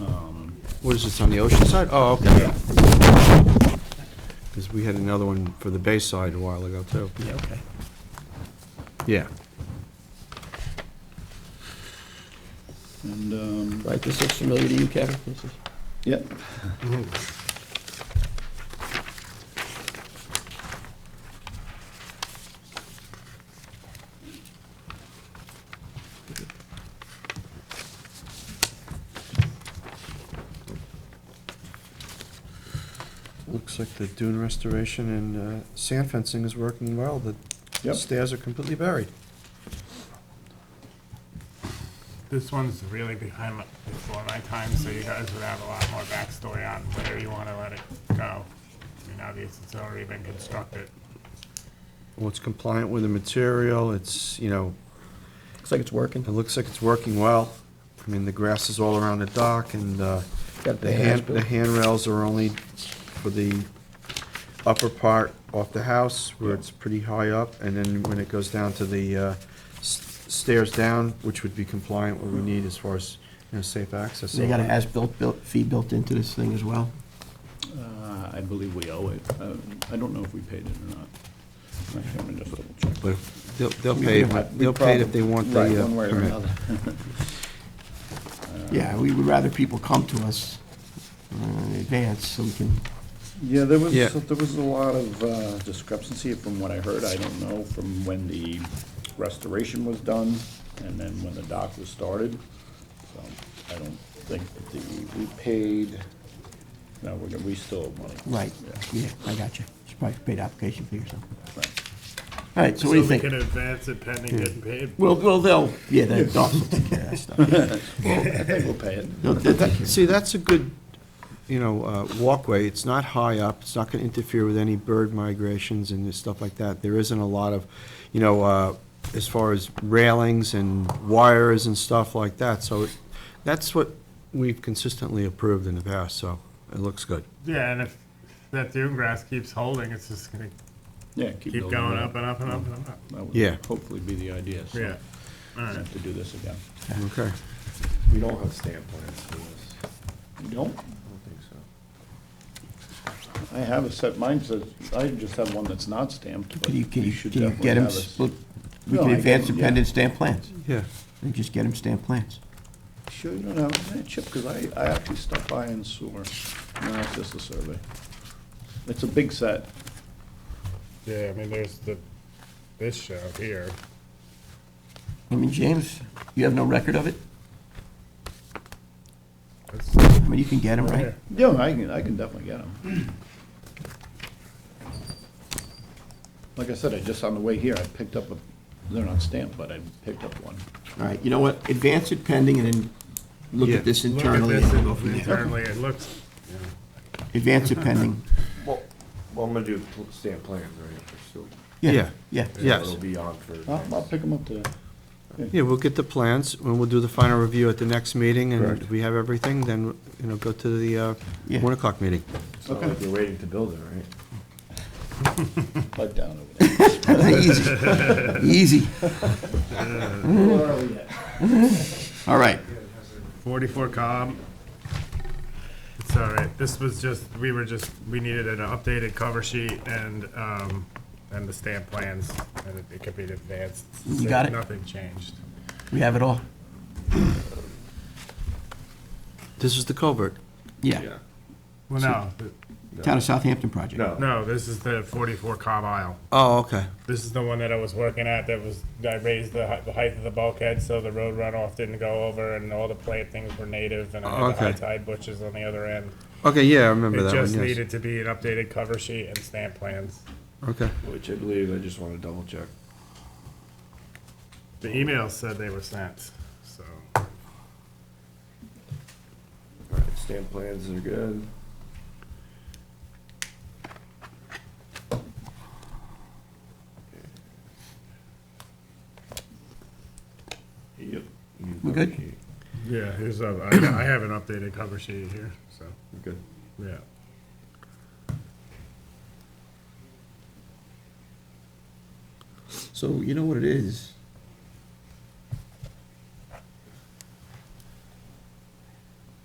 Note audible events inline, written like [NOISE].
Um, What is this, on the ocean side? Oh, okay. Because we had another one for the bay side a while ago, too. Yeah, okay. Yeah. And, um, Right, this looks familiar to you, Kevin? This is- yep, Looks like the dune restoration and uh, sand fencing is working well. The Yep. stairs are completely buried. This one's really behind my, before my time, so you guys would have a lot more backstory on where you want to let it go. I mean, obviously, it's already been constructed. Well, it's compliant with the material, it's, you know, Looks like it's working. it looks like it's working well. I mean, the grass is all around the dock, and uh, Got the the hand, as-built. the handrails are only for the upper part off the house, where it's pretty high up, and then when it goes down to the uh, s- stairs down, which would be compliant, what we need as far as, you know, safe access. They got an as-built built- fee built into this thing as well? uh, I believe we owe it. Uh, I don't know if we paid it or not. Actually, I'm gonna just double check. But they'll, they'll We- pay, we it- have- we they'll pay it if probably- they want right, the uh, one way or permit. another. Yeah, we would rather people come to us uh, in advance so we can, Yeah, there was, Yeah. there was a lot of uh, discrepancy from what I heard. I don't know from when the restoration was done and then when the dock was started. So I don't think that the, we paid, no, we're, gonna- we still owe money. right, Yeah, yeah, I got you. Should probably pay the application fee or something. right. All right, so what do you So we think? can advance it pending getting paid. Well, well, they'll, yeah, they'll also take care of that [LAUGHS] stuff. I think we'll pay it. They'll- they'll take care of it. See, that's a good, you know, uh, walkway, it's not high up, it's not gonna interfere with any bird migrations and this stuff like that. There isn't a lot of, you know, uh, as far as railings and wires and stuff like that, so it- that's what we've consistently approved in the past, so it looks good. Yeah, and if that dune grass keeps holding, it's just gonna Yeah. keep building going it up and up and up and up. That would Yeah. Hopefully be the idea, so. Yeah. we don't Have to do this again. Okay. We don't have stamp plans for this. You don't? I don't think so. I have a set, mine says, I just have one that's not stamped, but Can you, can you you, should can you definitely get them have a s- split? We No, can I advance can, the yeah. pending stamp plans. Yeah, And just get them stamped plans. Sure you don't have that chip, because I, I actually stopped by and saw, no, it's just a survey. It's a big set, Yeah, I mean, there's the, this show here. I mean, James, you have no record of it? That's- I mean, you can get them, right? yeah, I can, I can definitely get them. Like I said, I just, on the way here, I picked up a, they're not stamped, but I picked up one. All right, you know what, advance it pending and then look Yeah. at this Look at internally. this and go from there. internally, it looks, Advance it pending, Well, well, I'm gonna do pl- stamp plans, right, for still. yeah, Yeah. yeah. Yes. It'll be on for. I'll, I'll next- pick them up today. yeah, we'll get the plans, and we'll do the final review at the next meeting, and Correct. if we have everything, then, you know, go to the uh, Yeah. one o'clock meeting. It's not like you're waiting to build it, right? Pipe down over there. [LAUGHS] Easy, easy. Where are we at? All right, 44 Cobb. It's all right. This was just, we were just, we needed an updated cover sheet and, um, and the stamp plans, and it- it could be advanced. You got it? Nothing changed. we have it all. This is the culvert. Yeah, Well, no, th- Town of Southampton project. No, no, this is the 44 Cobb aisle. Oh, okay. This is the one that I was working at that was, I raised the hei- the height of the bulkhead so the road runoff didn't go over and all the plantings were native and I had the Okay. high tide bushes on the other end. Okay, yeah, I remember It that just one, yes. needed to be an updated cover sheet and stamp plans. Okay, which I believe, I just wanna double check. The emails said they were sent, so. Alright, stamp plans are good. Yep. We good? Yeah, here's a, I, I have an updated cover sheet here, so, We're Good. yeah. So you know what it is?